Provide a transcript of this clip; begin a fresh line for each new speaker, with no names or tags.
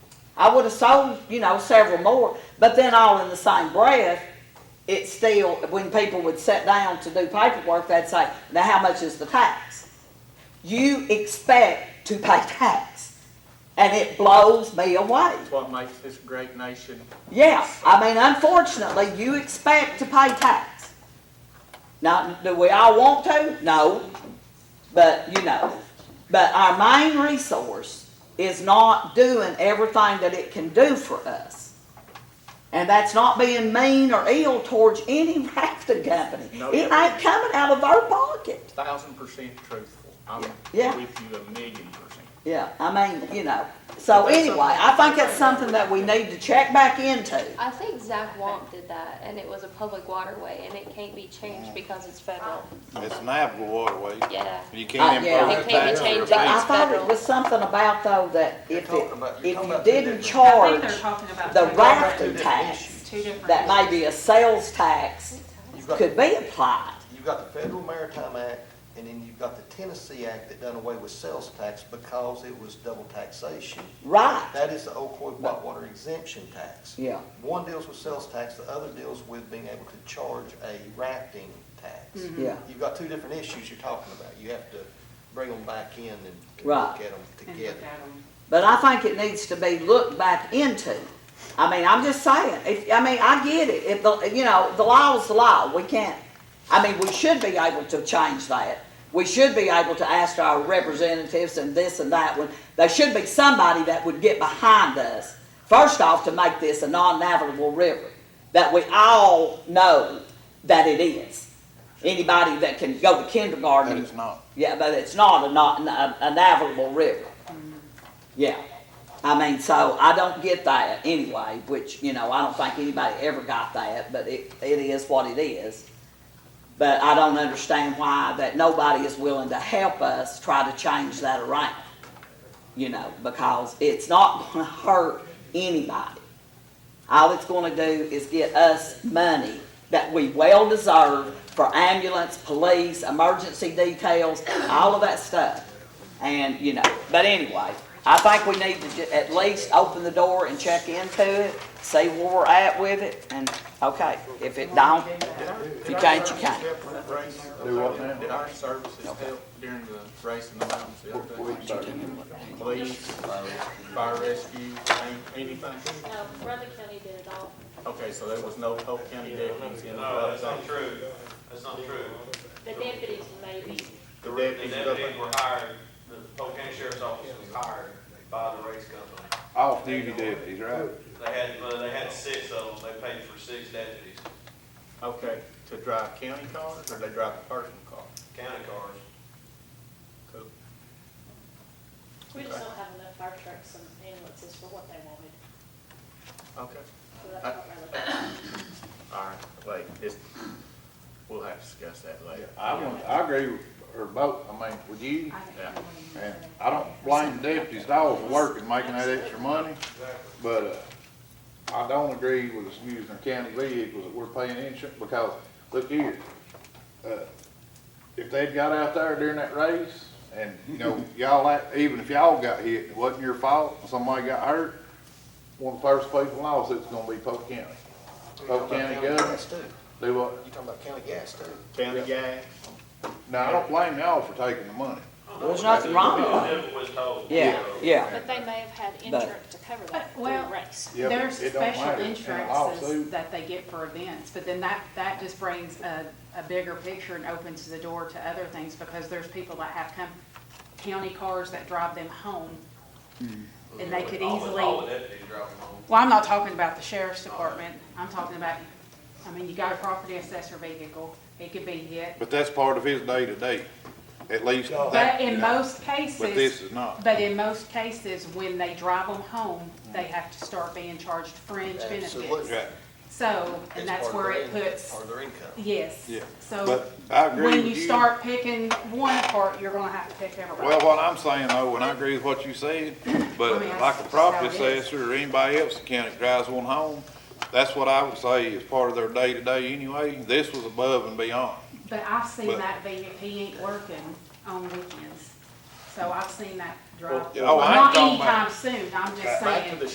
I would have sold, you know, several more, but then all in the same breath, it's still, when people would sit down to do paperwork, they'd say, now how much is the tax? You expect to pay tax, and it blows me away.
That's what makes this great nation.
Yeah, I mean, unfortunately, you expect to pay tax. Now, do we all want to? No, but you know. But our main resource is not doing everything that it can do for us. And that's not being mean or ill towards any rafting company.
No,
It
yeah.
ain't coming out of our pocket.
Thousand percent truthful. I'm
Yeah.
with you a million percent.
Yeah, I mean, you know. So anyway, I think it's something that we need to check back into.
I think Zach Wamp did that, and it was a public waterway, and it can't be changed because it's federal.
It's an navigable waterway.
Yeah.
You can't
Uh, yeah.
impose
It can't
tax
be
or
changed.
But I
It's
thought it
federal.
was something about though that
You're
if
talking about-
it,
you're
if
talking
you
about two
didn't
different-
I
charge
think they're talking about.
the
two
rafting
different-
tax,
Two different.
that may be a sales tax
You've got,
could be applied.
you've got the Federal Maritime Act, and then you've got the Tennessee Act that done away with sales tax because it was double taxation.
Right,
That is the Ocoee Whitewater exemption tax.
yeah,
One deals with sales tax, the other deals with being able to charge a rafting tax.
Mm-hmm.
yeah,
You've got two different issues you're talking about. You have to bring them back in and and
Right.
look at them
And look
together.
at 'em.
but I think it needs to be looked back into. I mean, I'm just saying, if, I mean, I get it, if the, you know, the law is the law, we can't, I mean, we should be able to change that. We should be able to ask our representatives and this and that, one. there should be somebody that would get behind us, first off, to make this a non-navigable river, that we all know that it is. Anybody that can go to kindergarten.
That it's not.
Yeah, but it's not a, not, a, a navigable river. Yeah, I mean, so I don't get that anyway, which, you know, I don't think anybody ever got that, but it, it is what it is. But I don't understand why that nobody is willing to help us try to change that around. You know, because it's not gonna hurt anybody. All it's gonna do is get us money that we well deserve for ambulance, police, emergency details, all of that stuff. And, you know, but anyway, I think we need to ju- at least open the door and check into it, see where we're at with it, and, okay, if it don't, if you can't, you can't.
Do what now? Did our services help during the race in the mountains the other day? Police, fire rescue, an- anything?
No, Brother County did it all.
Okay, so there was no Polk County deputies in the
No, that's
other
not true. That's not true.
The deputies maybe.
The
The
deputies,
deputies were hired, the Polk County Sheriff's Office was hired by the race company.
Off duty deputies, right?
They had, uh, they had six of them, they paid for six deputies,
okay, to drive county cars or they drive a personal car?
county cars.
Cool.
We just don't have enough fire trucks and ambulances for what they wanted.
Okay,
So that's what we're looking at.
all right, like, it's, we'll have to discuss that later.
I want, I agree with her both, I mean, with you,
I think
Yeah.
they're-
and I don't blame the deputies at all for working, making that extra money, but, uh, I don't agree with us using our county vehicles that we're paying insurance, because, look here, uh, if they'd got out there during that race, and, you know, y'all, act- even if y'all got hit, it wasn't your fault, and somebody got hurt, one of the first people lawsuit's gonna be Polk County.
You're
Polk
talking
County
about county gas
government,
too.
do what,
You're talking about county gas too.
County gas,
No, I don't blame y'all for taking the money.
There's nothing wrong with it.
Never was told.
Yeah, yeah,
But they may have had insurance to cover that through
Well-
the race.
Yeah, but
There's
it don't
special
matter. In a lawsuit-
insurances that they get for events, but then that, that just brings a, a bigger picture and opens the door to other things, because there's people that have come, county cars that drive them home.
Hmm.
And they could
All the-
easily,
All the
well,
deputies drove them home.
I'm not talking about the sheriff's department, I'm talking about, I mean, you got a property assessor vehicle, it could be hit.
But that's part of his day-to-day, at least that,
But in most cases.
But this is not.
But in most cases, when they drive them home, they have to start being charged fringe benefits.
Absolutely.
Right,
So,
It's
and that's
part of
where
their
it
income,
puts,
Part of their income.
yes.
yeah.
So
But I agree
when
with
you
you.
start picking one apart, you're gonna have to pick everybody.
Well, what I'm saying though, and I agree with what you said,
I
but
mean, that's
like a
just
property
how it is.
assessor or anybody else in the county that drives one home, that's what I would say is part of their day-to-day anyway. This was above and beyond.
But I've seen
but-
that being, he ain't working on weekends. So I've seen that drive.
yeah, oh, I ain't talking about-
Not anytime soon, I'm just
back to
saying.
the